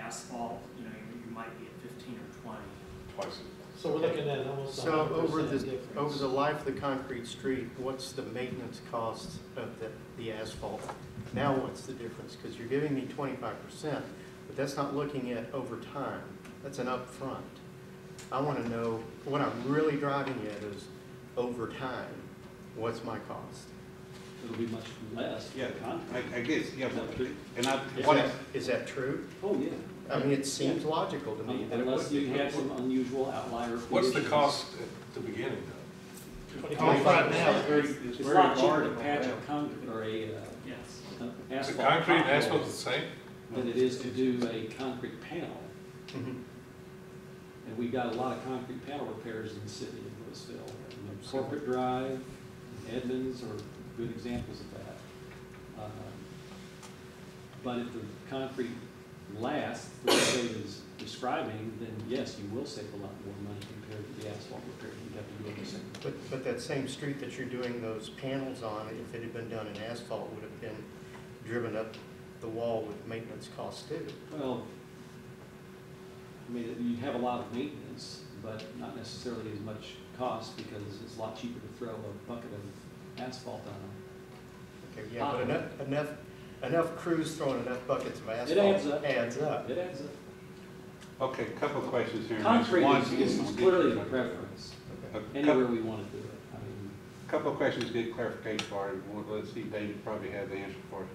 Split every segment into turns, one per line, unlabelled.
asphalt, you know, you might be at fifteen or twenty.
twice
So we're looking at almost a
So
hundred
over
percent
the,
difference.
over the life of the concrete street, what's the maintenance cost of the, the asphalt? Now what's the difference? Because you're giving me twenty-five percent, but that's not looking at over time. That's an upfront. I want to know, what I'm really driving at is over time, what's my cost?
It'll be much less.
Yeah,
Contract.
I, I guess, yeah, but- and I,
Is
what,
that, is that true?
Oh, yeah.
I mean, it seems logical to me that it would
Unless you
be.
had some unusual outlier.
What's the
conditions.
cost at the beginning though?
Right now,
It's very-
It's
it's
a
very
lot cheaper
hard
to
on
patch
that.
a concrete or a uh,
Yes.
an
Is the
asphalt.
concrete and
pothole
asphalt the same?
Than it is to do a concrete panel.
Mhm.
And we've got a lot of concrete panel repairs in the city of Louisville. You know, Corporate Drive, Edmonds are good examples of that. Um, But if the concrete lasts, the way Dave is describing, then yes, you will save a lot more money compared to the asphalt repair you have to do on the same.
But, but that same street that you're doing those panels on, if it had been done in asphalt, would have been driven up the wall with maintenance costs too.
Well, I mean, you have a lot of maintenance, but not necessarily as much cost because it's a lot cheaper to throw a bucket of asphalt on
Okay, yeah, but enough, enough, enough crews throwing enough buckets of asphalt.
adds up.
Adds up.
them. It adds up.
okay, couple of questions here.
Concrete
One-
is is clearly a preference,
A
anywhere we want to do it. I mean,
Couple of questions, get clarification for you. Well, Let's see, Dave probably has the answer for it.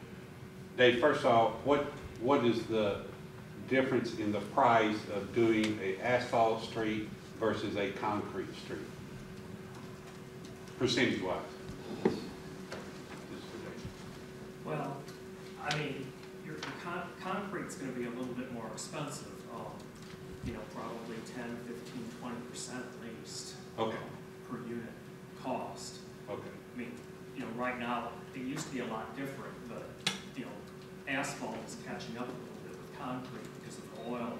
Dave, first off, what, what is the difference in the price of doing a asphalt street versus a concrete street? Percentage wise?
Well, I mean, your your con- concrete's gonna be a little bit more expensive, um, you know, probably 10, 15, 20 percent at least
Okay,
per unit cost.
okay.
I mean, you know, right now, it used to be a lot different, but, you know, asphalt is catching up a little bit with concrete because of the oil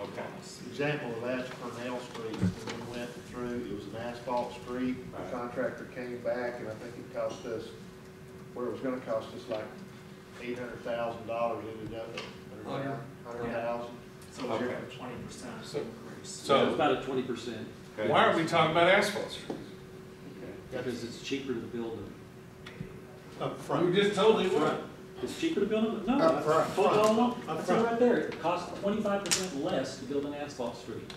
Okay.
costs.
Example of that's Cornell Street, when we went through, it was an asphalt street,
Right.
the contractor came back, and I think it cost us, where it was gonna cost us like eight hundred thousand dollars, ended up at
Oh,
Hundred.
hundred thousand.
So it's
Okay.
a twenty percent
So-
increase.
So-
It's about a twenty percent
okay.
Why aren't we talking about asphalt streets?
because it's cheaper to build them.
You
Upfront.
just told me what.
It's cheaper to build them? No.
Up front.
I told you all along. I said
Up front.
right there, it costs twenty-five percent less to build an asphalt street.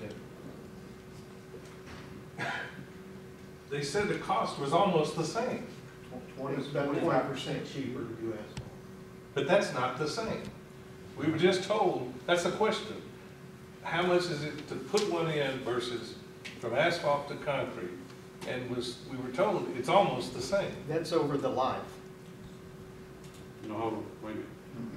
They said the cost was almost the same,
It's about percent cheaper to do asphalt.
but that's not the same. We were just told, that's the question. How much is it to put one in versus from asphalt to concrete? And was, we were told it's almost the same.
That's over the life.
No, hold on, wait a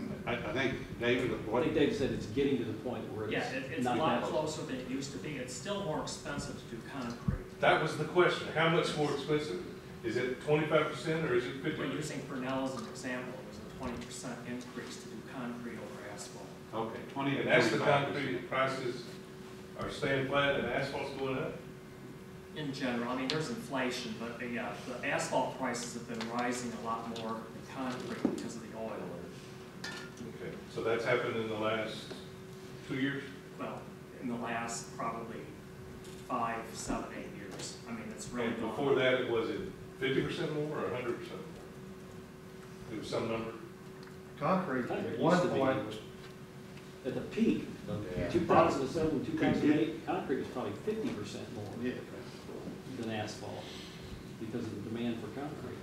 minute. I, I think, David,
I
what,
think Dave said it's getting to the point where
Yeah, it,
it's
it's a
not
lot
happening.
closer than it used to be. It's still more expensive to do concrete.
That was the question. How much more expensive? Is it twenty-five percent or is it fifty?
But using Fresnel as an example, it was a twenty percent increase to do concrete over asphalt.
okay, twenty to
And that's the
twenty-five
concrete prices are staying flat and asphalt's going up?
In general, I mean, there's inflation, but the, uh, the asphalt prices have been rising a lot more than concrete because of the oil.
Okay, so that's happened in the last two years?
Well, in the last probably five, seven, eight years. I mean, it's really
And
gone.
before that, it was it fifty percent more or hundred percent more? It was some number.
Concrete,
Kind of
at
used
one
to be.
point,
At the peak,
Yeah.
two thousand and seven, two
get-
thousand and eight, concrete was probably fifty percent more
yeah,
than asphalt because of the demand for concrete.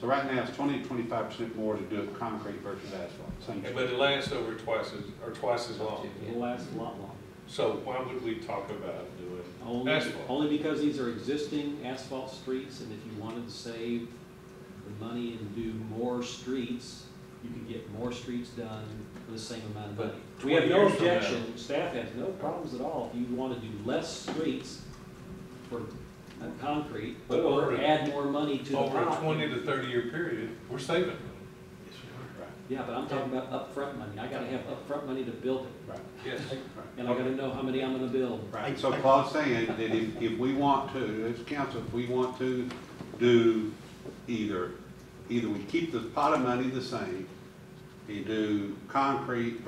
So right now, it's twenty to twenty-five percent more to do it concrete versus asphalt, same
But it lasts over twice as, or twice as long.
It'll last a lot longer.
So why would we talk about doing
Only,
asphalt?
only because these are existing asphalt streets, and if you wanted to save the money and do more streets, you could get more streets done for the same amount of
But
money. We have
20
no
years from now-
objection, staff has no problems at all, if you want to do less streets for uh, concrete,
But
or
over-
add more money to the pot.
Over a twenty to thirty-year period, we're saving money.
Yeah, but I'm talking about upfront money, I gotta have upfront money to build it,
Right,
Yes.
right.
and I gotta know how many I'm gonna build.
Right, so Claude's saying that if, if we want to, as council, if we want to do either, either we keep the pot of money the same, and do concrete